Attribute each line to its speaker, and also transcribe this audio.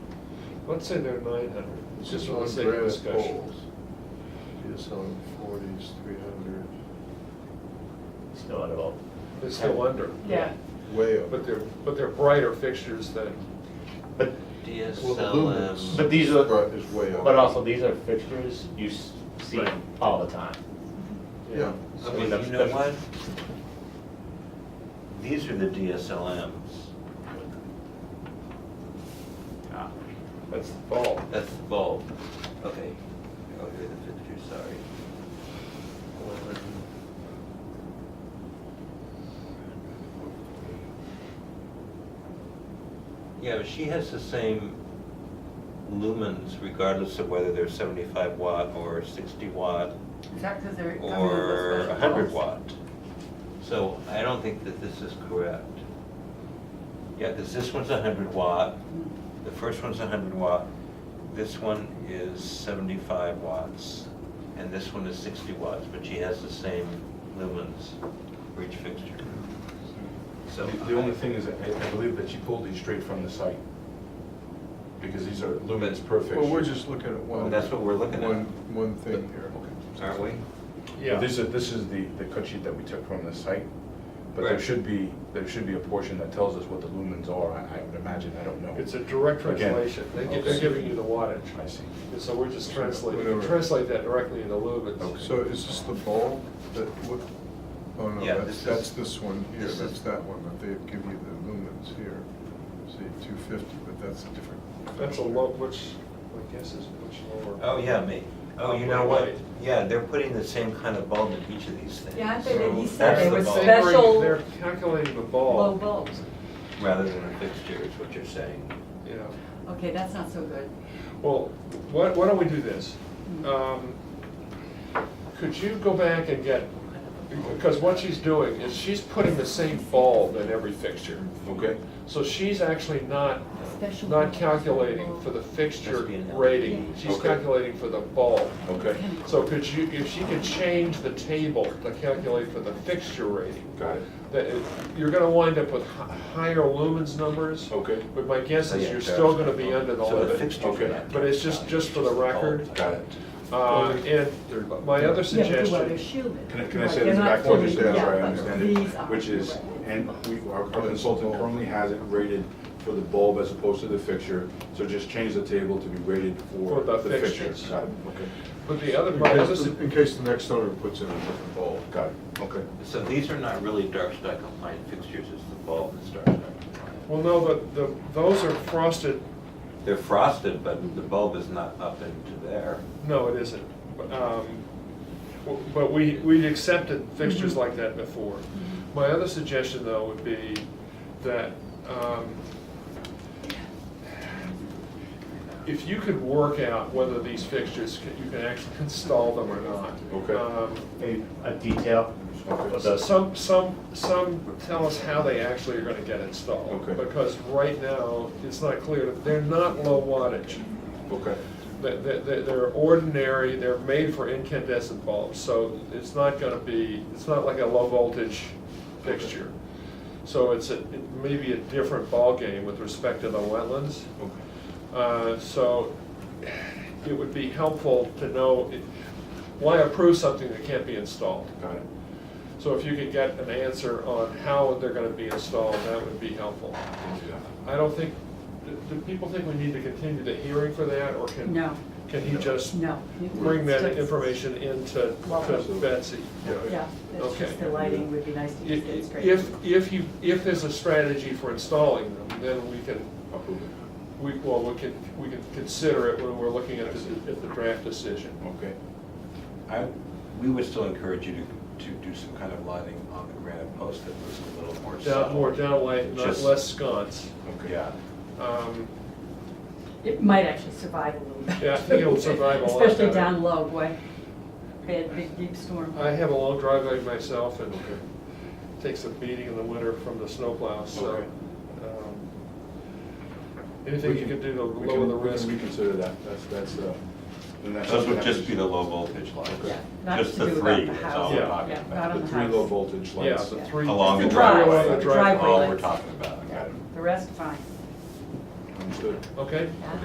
Speaker 1: Let's say they're nine hundred, it's just for the
Speaker 2: on
Speaker 1: sake of
Speaker 2: granite
Speaker 1: discussion.
Speaker 2: poles. It's on forties, three hundred,
Speaker 3: Still at all.
Speaker 1: They're still under.
Speaker 4: Yeah.
Speaker 2: way up.
Speaker 1: But they're, but they're brighter fixtures than,
Speaker 3: But,
Speaker 2: Well, the lumens
Speaker 3: but
Speaker 5: DSLM,
Speaker 3: these are-
Speaker 2: bri- Is way up.
Speaker 3: but also, these are fixtures you s- see
Speaker 1: Right.
Speaker 3: all the time.
Speaker 2: Yeah,
Speaker 5: I mean,
Speaker 3: that's-
Speaker 5: you know
Speaker 3: that's-
Speaker 5: what? These are the DSLMs,
Speaker 1: that's the bulb.
Speaker 5: that's the bulb. Okay, oh, here are the fixtures, sorry. Eleven. Yeah, but she has the same lumens regardless of whether they're seventy-five watt or sixty watt.
Speaker 4: Is that because they're coming in with
Speaker 5: or
Speaker 4: special?
Speaker 5: a hundred
Speaker 4: bulbs?
Speaker 5: watt. So I don't think that this is correct. Yeah, because this one's a hundred watt, the first one's a hundred watt, this one is seventy-five watts, and this one is sixty watts, but she has the same lumens for each fixture. So.
Speaker 6: The the only thing is, I I believe that she pulled these straight from the site, because these are lumens per fixture.
Speaker 2: well, we're just looking at one.
Speaker 5: Well, Oh, that's what we're looking at.
Speaker 2: One, one thing here.
Speaker 5: Aren't we?
Speaker 1: Yeah.
Speaker 6: This is, this is the, the cut sheet that we took from the site, but there
Speaker 5: Right.
Speaker 6: should be, there should be a portion that tells us what the lumens are, I I would imagine, I don't know.
Speaker 1: It's a direct
Speaker 6: Again,
Speaker 1: translation, they give, they're
Speaker 6: okay.
Speaker 1: giving you the wattage.
Speaker 6: I see.
Speaker 1: And so we're just translating, we
Speaker 2: Whatever.
Speaker 1: translate that directly into lumens.
Speaker 2: So is this the bulb that, what, oh no,
Speaker 5: Yeah,
Speaker 2: that's,
Speaker 5: this
Speaker 2: that's
Speaker 5: is-
Speaker 2: this one here,
Speaker 5: this
Speaker 2: that's
Speaker 5: is-
Speaker 2: that one, that they give you the lumens here. See, two fifty, but that's a different.
Speaker 1: That's a low, which, my guess is much lower.
Speaker 5: Oh, yeah, me. Oh, you know what? Yeah, they're putting the same kind of bulb in each of these things.
Speaker 4: Yeah, I think that he
Speaker 5: So
Speaker 4: said
Speaker 5: that's
Speaker 4: they
Speaker 5: the
Speaker 4: were
Speaker 1: But
Speaker 5: bulb.
Speaker 1: they bring-
Speaker 4: special-
Speaker 1: They're calculating the
Speaker 4: Low
Speaker 1: bulb,
Speaker 4: bulbs.
Speaker 5: Rather than a fixture is what you're saying.
Speaker 1: yeah.
Speaker 4: Okay, that's not so good.
Speaker 1: Well, why, why don't we do this?
Speaker 4: Hmm.
Speaker 1: Um, Could you go back and get, because what she's doing is she's putting the same bulb in every fixture.
Speaker 6: Okay,
Speaker 1: So she's actually not,
Speaker 4: Special
Speaker 1: not
Speaker 4: bulb.
Speaker 1: calculating for the
Speaker 5: Must
Speaker 1: fixture
Speaker 5: be an L.
Speaker 1: rating, she's
Speaker 6: Okay.
Speaker 1: calculating for the bulb.
Speaker 6: okay,
Speaker 1: So could you, if she could change the table to calculate for the fixture rating,
Speaker 6: got it,
Speaker 1: that, it- you're gonna wind up with hi- higher lumens numbers,
Speaker 6: okay,
Speaker 1: but my guess
Speaker 5: So,
Speaker 1: is
Speaker 5: yeah,
Speaker 1: you're
Speaker 5: that
Speaker 1: still
Speaker 5: was-
Speaker 1: gonna be under the
Speaker 5: So the
Speaker 1: limit.
Speaker 5: fixture for
Speaker 6: Okay.
Speaker 5: that.
Speaker 1: But it's just- just for the record.
Speaker 6: got it.
Speaker 1: Uh, And my other
Speaker 4: Yeah, but they're
Speaker 1: suggestion,
Speaker 4: shielded.
Speaker 6: Can I, can I
Speaker 4: Right,
Speaker 6: say
Speaker 4: they're
Speaker 6: this
Speaker 4: not
Speaker 6: back to
Speaker 4: fully-
Speaker 6: you, just so I
Speaker 4: yeah,
Speaker 6: understand
Speaker 4: but
Speaker 6: it?
Speaker 4: these are,
Speaker 6: Which is,
Speaker 4: you're right.
Speaker 6: and we, our our consultant currently has it rated for the bulb as opposed to the fixture, so just change the table to be rated
Speaker 1: For
Speaker 6: for
Speaker 1: the
Speaker 6: the fixture.
Speaker 1: fixtures.
Speaker 6: Got it, okay,
Speaker 1: but the other, my
Speaker 2: In
Speaker 1: other,
Speaker 2: case,
Speaker 1: su-
Speaker 2: in case the next owner puts in a different bulb.
Speaker 6: got it, okay.
Speaker 5: So these are not really dark sky compliant fixtures, it's the bulb that's dark sky compliant.
Speaker 1: well, no, but the, those are frosted,
Speaker 5: They're frosted, but the bulb is not up into there.
Speaker 1: no, it isn't. But, um, w- But we, we'd accepted fixtures like that before. My other suggestion, though, would be that um, if you could work out whether these fixtures, can- you can actually install them or not.
Speaker 6: Okay.
Speaker 1: Um,
Speaker 3: Maybe a detail of
Speaker 1: So
Speaker 3: the
Speaker 1: Some, some, some tell us how they actually are gonna get installed.
Speaker 6: Okay.
Speaker 1: Because right now, it's not clear, they're not low wattage.
Speaker 6: Okay,
Speaker 1: They, they, they- they're ordinary, they're made for incandescent bulbs, so it's not gonna be, it's not like a low voltage fixture. So it's a, it may be a different ballgame with respect to the wetlands.
Speaker 6: okay.
Speaker 1: Uh, So it would be helpful to know, it- why approve something that can't be installed?
Speaker 6: Got it.
Speaker 1: So if you could get an answer on how they're gonna be installed, that would be helpful. I don't think, do- do people think we need to continue the hearing for that, or can?
Speaker 4: No.
Speaker 1: Can he just?
Speaker 4: No. you can
Speaker 1: Bring that
Speaker 4: just-
Speaker 1: information into to
Speaker 4: Welcome.
Speaker 1: Betsy?
Speaker 4: Yeah, that's
Speaker 1: Okay.
Speaker 4: just the lighting would be nice to just get straight.
Speaker 1: If, if you, if there's a strategy for installing them, then we can,
Speaker 6: Approve it.
Speaker 1: we, well, we can, we can consider it when we're looking at the, at the draft decision.
Speaker 6: Okay.
Speaker 5: I, we would still encourage you to, to do some kind of lighting on the granite post that was a little more
Speaker 1: Down,
Speaker 5: subtle.
Speaker 1: more downlight, not
Speaker 5: Just-
Speaker 1: less sconce.
Speaker 6: Okay.
Speaker 5: Yeah,
Speaker 1: Um,
Speaker 4: It might actually survive a little bit.
Speaker 1: Yeah, I think it'll survive a lot
Speaker 4: Especially
Speaker 1: better.
Speaker 4: down low, boy. Bad, big, deep storm.
Speaker 1: I have a long driveway myself and takes a beating in the winter from the snowplow, so.
Speaker 6: Okay.
Speaker 1: um, Anything you can do to
Speaker 6: We
Speaker 1: lower
Speaker 6: can-
Speaker 1: the
Speaker 6: we can
Speaker 1: risk.
Speaker 6: Reconsider that, that's, that's, uh. then that's-
Speaker 5: those would just be the low voltage lights.
Speaker 4: Yeah, not
Speaker 5: Just
Speaker 4: to do
Speaker 5: the
Speaker 4: about
Speaker 5: three
Speaker 4: the
Speaker 5: is
Speaker 4: house.
Speaker 5: all we're
Speaker 1: Yeah,
Speaker 5: talking
Speaker 4: yeah,
Speaker 5: about.
Speaker 4: not on
Speaker 6: The
Speaker 4: the
Speaker 6: three
Speaker 4: house.
Speaker 6: low voltage
Speaker 1: Yeah,
Speaker 6: lights.
Speaker 1: the
Speaker 4: Yeah.
Speaker 1: three.
Speaker 5: Along the
Speaker 4: Just the drive-
Speaker 5: driveway.
Speaker 1: the
Speaker 4: driveway
Speaker 5: All we're
Speaker 4: lights.
Speaker 5: talking about.
Speaker 4: Yeah, The rest, fine.
Speaker 6: Understood.
Speaker 1: Okay?
Speaker 4: Yeah.